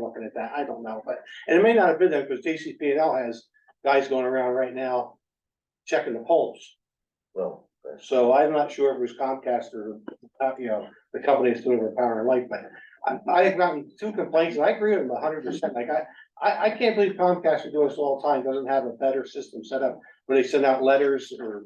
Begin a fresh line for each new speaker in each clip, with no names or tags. looking at that, I don't know, but, and it may not have been there, because JCPL has guys going around right now checking the poles,
Well, that's-
so I'm not sure if it was Comcast or, uh, you know, the company that's doing our power and light, but I, I have gotten two complaints, and I agree with them a hundred percent, like, I, I, I can't believe Comcast is doing this all the time, doesn't have a better system set up, where they send out letters or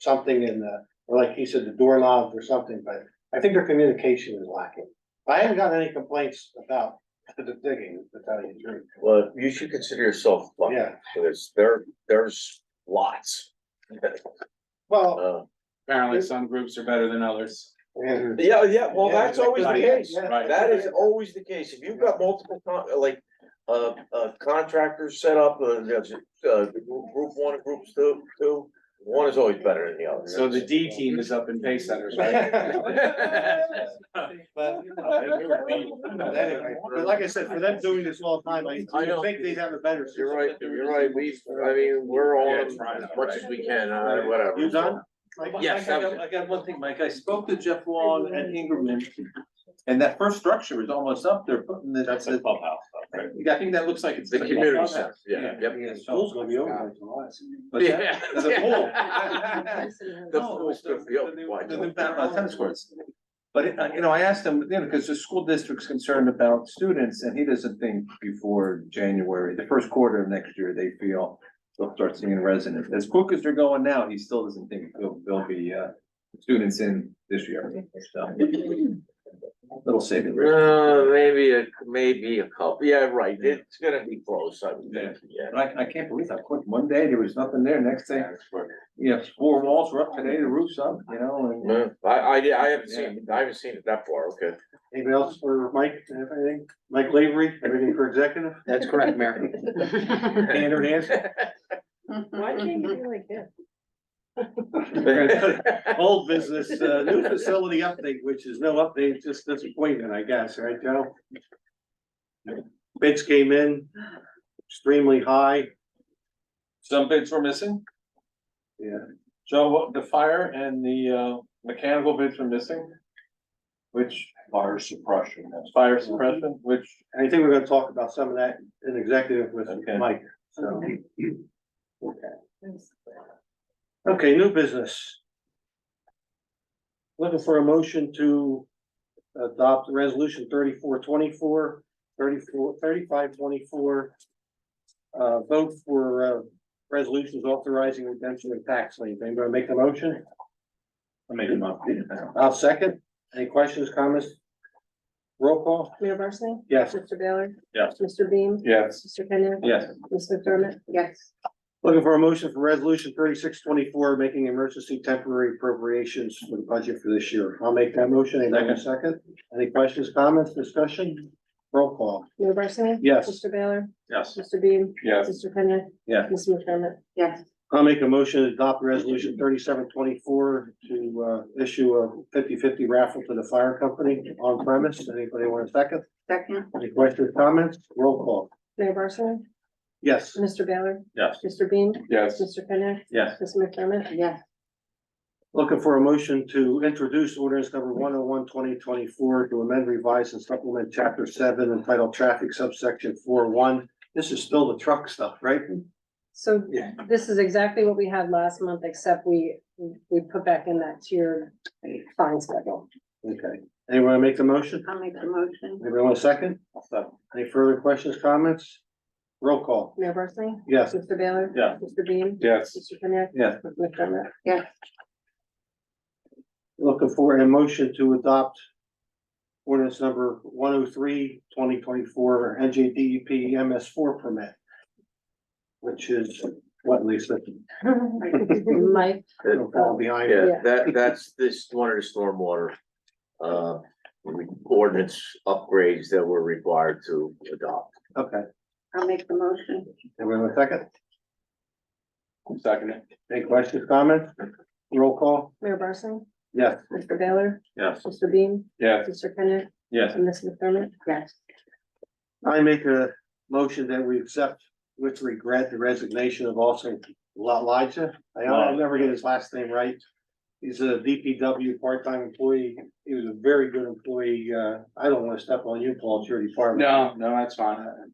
something in the, or like he said, the doorknob or something, but I think their communication is lacking. I haven't gotten any complaints about the digging, to tell you the truth.
well, you should consider yourself lucky,
Yeah,
because there, there's lots.
well,
Uh,
Apparently some groups are better than others.
and-
Yeah, yeah, well,
Yeah,
that's always the
like-
case,
yeah.
Right.
that is always the case, if you've got multiple con, like, uh, uh, contractors set up, uh, there's, uh, group one, and groups two, two. One is always better than the other.
So the D team is up in pay centers, right?
But- But anyway, but like I said, for them doing this all the time, I,
I
I
know.
think they'd have a better. system.
You're right, you're right, we, I mean, we're
Yeah,
on
it's right,
as much as we can, uh, whatever.
You done?
Yes, I got, I got one thing, Mike, I spoke to Jeff Long and Ingerman, and that first structure is almost up, they're putting the, that's the,
clubhouse.
I think that looks like it's.
The
like a
community
clubhouse.
center, yeah, yep.
Yeah, school's gonna be over in July.
What's that?
Yeah.
There's a pool.
The
No,
pool's
it's the-
good for you.
the new-
Why
the
not?
new ba- uh, tennis courts. But, it- uh, you know, I asked him, you know, because the school district's concerned about students, and he doesn't think before January, the first quarter of next year, they feel they'll start seeing residents. As quick as they're going now, he still doesn't think there'll, there'll be, uh, students in this year, so. Little saving. grace.
Uh, maybe a, maybe a couple, yeah, right, it's gonna be close, I would think, yeah.
And I, I can't believe how quick, one day there was nothing there, next day, you know, four walls were up today, the roof's up, you know, and.
No, I, I, I haven't seen, I haven't seen it that far, okay.
Anybody else for Mike, anything? Mike Lavery, everything for executive?
That's correct, Mayor.
Andrew Hanson,
Why can't you be like him?
old business, uh, new facility update, which is no update, just disappointment, I guess, right, Joe? Bids came in extremely high.
Some bids were missing.
Yeah.
So what- the fire and the uh mechanical bids were missing. Which. Fire suppression. Fire suppression, which,
And I think we're gonna talk about some of that in executive with
Okay.
Mike, so. Okay, new business. Looking for a motion to adopt resolution thirty-four twenty-four, thirty-four, thirty-five twenty-four. Uh, vote for, uh, resolutions authorizing redemption of tax lien. Anybody make the motion?
I made them up.
I'll second. Any questions, comments? Roll call?
Mayor Barsney?
Yes.
Mr. Baylor?
Yes.
Mr. Beam?
Yes,
Mr. Kenya?
yes,
Ms. McDermott? Yes.
Looking for a motion for resolution thirty-six twenty-four, making emergency temporary appropriations for the budget for this year. I'll make that motion. Anybody have a second? Any questions, comments, discussion? Roll call.
Mayor Barsney?
Yes.
Mr. Baylor?
yes,
Mr. Beam?
yes,
Mr. Kenya?
Yes.
Ms. McDermott? Yes.
I'll make a motion to adopt resolution thirty-seven twenty-four to uh issue a 50-50 raffle to the fire company on premise. Anybody want a second?
Second.
Any questions, comments? Roll call.
Mayor Barsney?
Yes.
Mr. Baylor?
yes,
Mr. Beam?
yes,
Mr. Kenya?
yes,
Ms. McDermott? Yes.
Looking for a motion to introduce ordinance number 101 2024 to amend, revise and supplement chapter seven entitled traffic subsection four one. This is still the truck stuff, right?
So
Yeah.
this is exactly what we had last month, except we, we put back in that tier fine schedule.
Okay. Anyone wanna make the motion?
I'll make the motion.
Anybody want a second? Any further questions, comments? Roll call.
Mayor Barsney?
Yes.
Mr. Baylor?
Yeah.
Mr. Beam?
yes.
Mr. Kenya?
Yes.
Ms. McDermott?
Looking for a motion to adopt ordinance number 103 2024 NJDEP MS four permit. Which is what, Lisa?
Mike,
Don't fall behind.
Yeah,
Yeah.
that, that's this, one of the stormwater, uh, ordinance upgrades that we're required to adopt.
Okay.
I'll make the motion.
Everyone want a second?
Second,
Any questions, comments? Roll call?
Mayor Barsney?
Yes.
Mr. Baylor?
yes,
Mr. Beam?
yes,
Mr. Kenneth?
yes,
And Ms. McDermott? Yes.
I make a motion that we accept with regret the resignation of also Elijah. I I'll never get his last name right. He's a DPW part-time employee. He was a very good employee. Uh, I don't wanna step on you, Paul, it's your department.
No, no, that's fine.